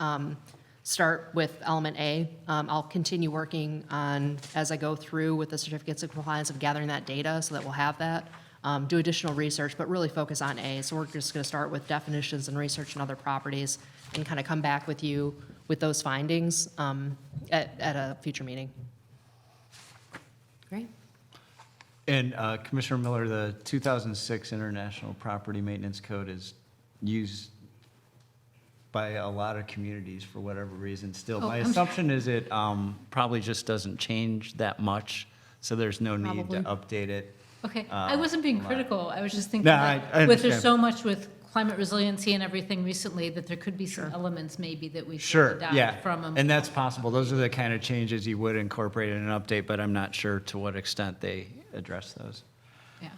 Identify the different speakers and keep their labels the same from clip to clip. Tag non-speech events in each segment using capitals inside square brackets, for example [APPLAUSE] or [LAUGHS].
Speaker 1: um, start with element A. Um, I'll continue working on, as I go through with the certificates of compliance, of gathering that data so that we'll have that. Um, Do additional research, but really focus on A. So we're just going to start with definitions and research and other properties and kind of come back with you with those findings um, at, at a future meeting. Great.
Speaker 2: And uh, Commissioner Miller, the 2006 International Property Maintenance Code is used by a lot of communities for whatever reason still.
Speaker 3: Oh,
Speaker 2: My
Speaker 3: I'm-
Speaker 2: assumption is it um, probably just doesn't change that much, so there's no need to update it.
Speaker 3: Okay, I
Speaker 2: Uh,
Speaker 3: wasn't being
Speaker 2: right.
Speaker 3: critical, I was just thinking,
Speaker 2: No, I- I
Speaker 3: like, with, there's
Speaker 2: understand.
Speaker 3: so much with climate resiliency and everything recently, that there could be some elements maybe that we should
Speaker 2: Sure,
Speaker 3: adopt
Speaker 2: yeah.
Speaker 3: from them.
Speaker 2: And that's possible. Those are the kind of changes you would incorporate in an update, but I'm not sure to what extent they address those.
Speaker 3: Yeah,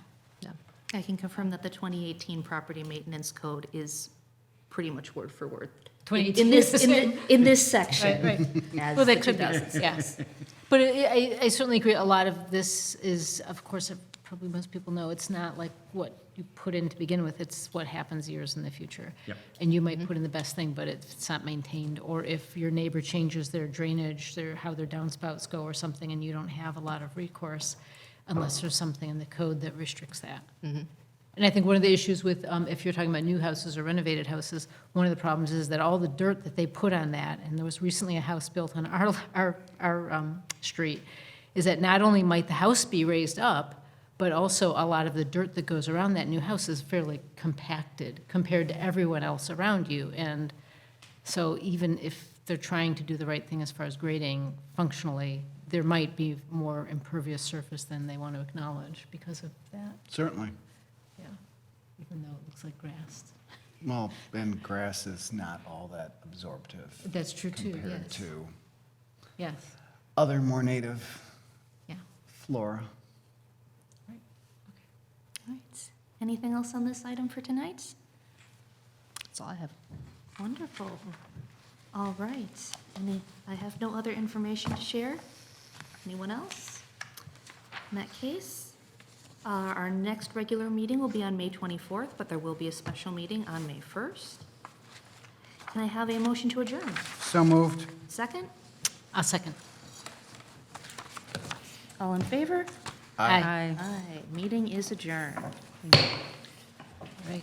Speaker 1: Yeah.
Speaker 4: I can confirm that the 2018 property maintenance code is pretty much word for word. in-
Speaker 3: 2018
Speaker 4: [LAUGHS] In
Speaker 3: [LAUGHS]
Speaker 4: this,
Speaker 3: is-
Speaker 4: in the- in this section.
Speaker 3: right.
Speaker 4: [LAUGHS] as
Speaker 3: Well,
Speaker 4: the
Speaker 3: that could be,
Speaker 4: 2000s.
Speaker 3: yes. But I- I, I certainly agree, a lot of this is, of course, probably most people know, it's not like what you put in to begin with, it's what happens years in the future.
Speaker 2: Yep.
Speaker 3: And you might put in the best thing, but if it's not maintained, or if your neighbor changes their drainage, their, how their downspouts go or something, and you don't have a lot of recourse, unless there's something in the code that restricts that. And I think one of the issues with, um, if you're talking about new houses or renovated houses, one of the problems is that all the dirt that they put on that, and there was recently a house built on our, [LAUGHS] our, our, um, street, is that not only might the house be raised up, but also a lot of the dirt that goes around that new house is fairly compacted compared to everyone else around you. And so even if they're trying to do the right thing as far as grading functionally, there might be more impervious surface than they want to acknowledge because of that.
Speaker 5: Certainly.
Speaker 3: Yeah, even though it looks like grass.
Speaker 5: Well, and grass is not all that absorptive
Speaker 3: That's true too,
Speaker 5: compared
Speaker 3: yes.
Speaker 5: to
Speaker 3: Yes,
Speaker 5: other more native
Speaker 3: yeah.
Speaker 5: flora.
Speaker 4: All right. Anything else on this item for tonight?
Speaker 1: That's all I have.
Speaker 4: Wonderful. All right. Any, I have no other information to share. Anyone else? In that case, uh, our next regular meeting will be on May 24th, but there will be a special meeting on May 1st. Can I have a motion to adjourn?
Speaker 5: So moved.
Speaker 4: Second?
Speaker 3: A second.
Speaker 4: All in favor?
Speaker 3: Aye.
Speaker 4: Aye. Meeting is adjourned.
Speaker 3: Right.